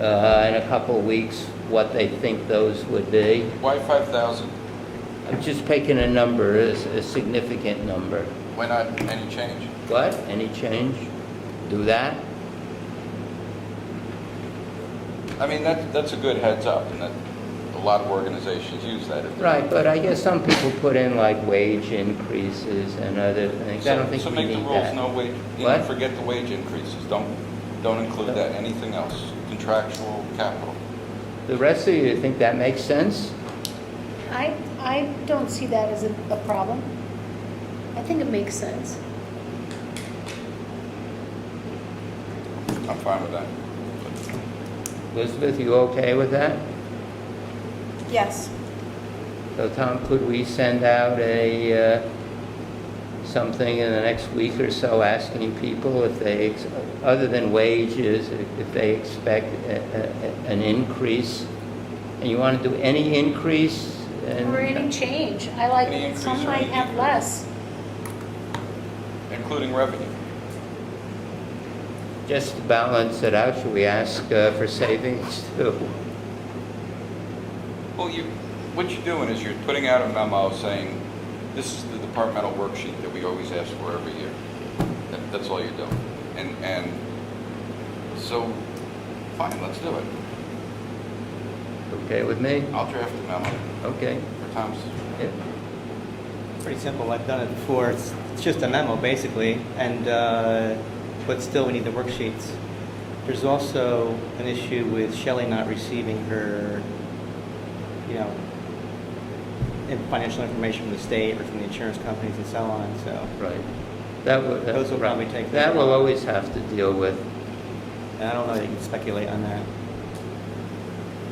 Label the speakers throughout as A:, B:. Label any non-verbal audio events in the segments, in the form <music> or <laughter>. A: uh, in a couple of weeks what they think those would be.
B: Why 5,000?
A: I'm just picking a number, a s- a significant number.
B: Why not any change?
A: What, any change? Do that?
B: I mean, that, that's a good heads up, and that, a lot of organizations use that. if they're-
A: Right, but I guess some people put in like wage increases and other things. I don't
B: So-
A: think we need that.
B: So make the rules no wage, you know,
A: What?
B: forget the wage increases, don't, don't include that, anything else, contractual, capital.
A: The rest of you think that makes sense?
C: I, I don't see that as a, a problem. I think it makes sense.
B: I'm fine with that.
A: Elizabeth, you okay with that?
D: Yes.
A: So Tom, could we send out a, uh, something in the next week or so asking people if they, ex- other than wages, if they expect a- a- a- an increase? And you want to do any increase? and-
C: Or any change. I like,
B: Any increase
C: some
B: or
C: might
B: any
C: have
B: decrease.
C: less.
B: Including revenue.
A: Just to balance it out, should we ask uh, for savings <laughs> too?
B: Well, you, what you're doing is you're putting out a memo saying, this is the departmental worksheet that we always ask for every year. That- That's all you're doing. And, and, so, fine, let's do it.
A: Okay with me?
B: I'll draft a memo
A: Okay.
B: for Tom's.
A: Yeah.
E: It's pretty simple. I've done it before. It's, it's just a memo, basically, and uh, but still, we need the worksheets. There's also an issue with Shelley not receiving her, you know, in- financial information from the state or from the insurance companies and so on. So
A: Right. That will.
E: Those will probably take
A: That
E: them.
A: will always have to deal with.
E: and I don't know that you can speculate on that.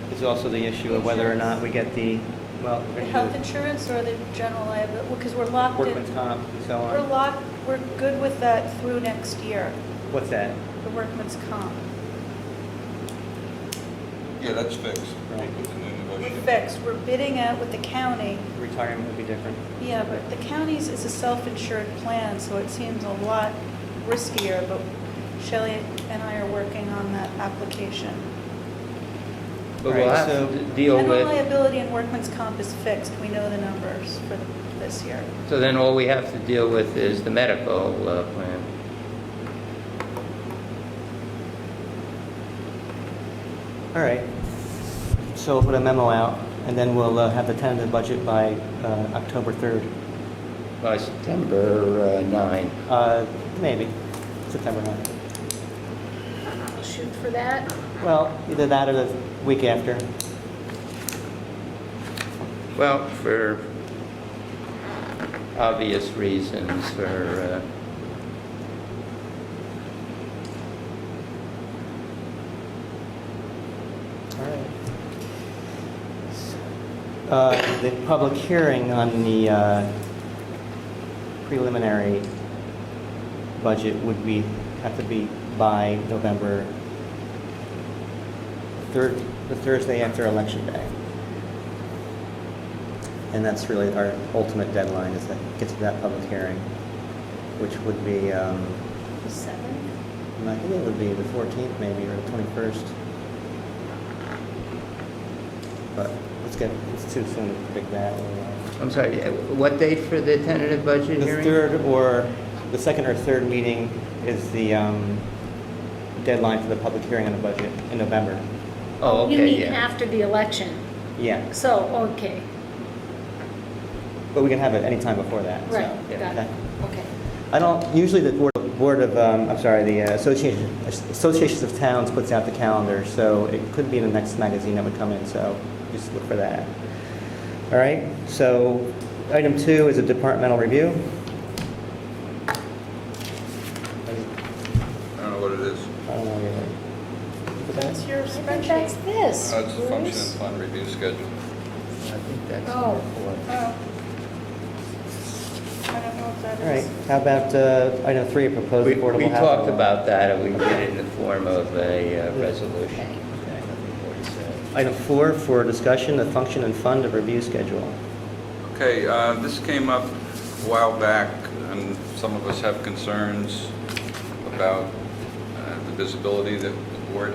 E: There's also the issue of whether or not we get the well
D: The health insurance or the general liability, because we're locked
E: workman's
D: in,
E: comp and so
D: we're
E: on.
D: locked, we're good with that through next year,
E: What's that?
D: the workman's comp.
B: Yeah, that's fixed.
E: Right.
B: With the new
D: We're
B: negotiation.
D: fixed, we're bidding out with the county.
E: Retirement would be different.
D: Yeah, but the county's is a self-insured plan, so it seems a lot riskier, but Shelley and I are working on that application.
A: But we'll
E: Right,
A: have
E: so-
A: to d- deal
D: General
A: with,
D: liability and workman's comp is fixed, we know the numbers for this year.
A: so then all we have to deal with is the medical uh, plan.
E: All right. So we'll put a memo out, and then we'll uh, have the tentative budget by uh, October 3rd.
A: By September uh, 9.
E: Uh, Maybe, September 9th.
C: I'll shoot for that.
E: Well, either that or the week after.
A: Well, for obvious reasons, for, uh,
E: All right. Uh, The public hearing on the uh, preliminary budget would be, have to be by November 3rd, the Thursday after Election Day. And that's really our ultimate deadline, is that, get to that public hearing, which would be, um,
C: Seven?
E: I think it would be the 14th maybe, or the 21st. But let's get, it's too soon to predict that.
A: uh, I'm sorry, uh, what date for the tentative budget
E: The
A: hearing?
E: third or, the second or third meeting is the um, deadline for the public hearing on the budget in November.
A: Oh,
C: You
A: okay,
C: mean
A: yeah.
C: after the election.
E: Yeah,
C: So, okay,
E: but we can have it anytime before that, so.
C: right,
A: yeah,
C: got
E: okay.
C: it, okay.
E: I don't, usually the Board, board of, um, I'm sorry, the uh, Association, Associations of Towns puts out the calendar, so it could be in the next magazine that would come in, so just look for that. All right, so item two is a departmental review.
B: I don't know what it is.
E: I don't know really. Look at
D: That's
E: that.
D: your
C: I think that's
D: spreadsheet.
C: this,
B: Uh, It's a function and
C: Bruce.
B: fund review schedule.
A: I think that's
C: Oh.
A: number four.
D: Oh. I don't know if that
E: All right,
D: is.
E: how about uh, item three, proposed
A: We
E: affordable
A: we
E: housing?
A: talked
E: law?
A: about that, and we did it in the form of a uh, resolution.
E: Okay. Item four for discussion, the function and fund of review schedule.
B: Okay, uh, this came up a while back, and some of us have concerns about uh, the visibility that the board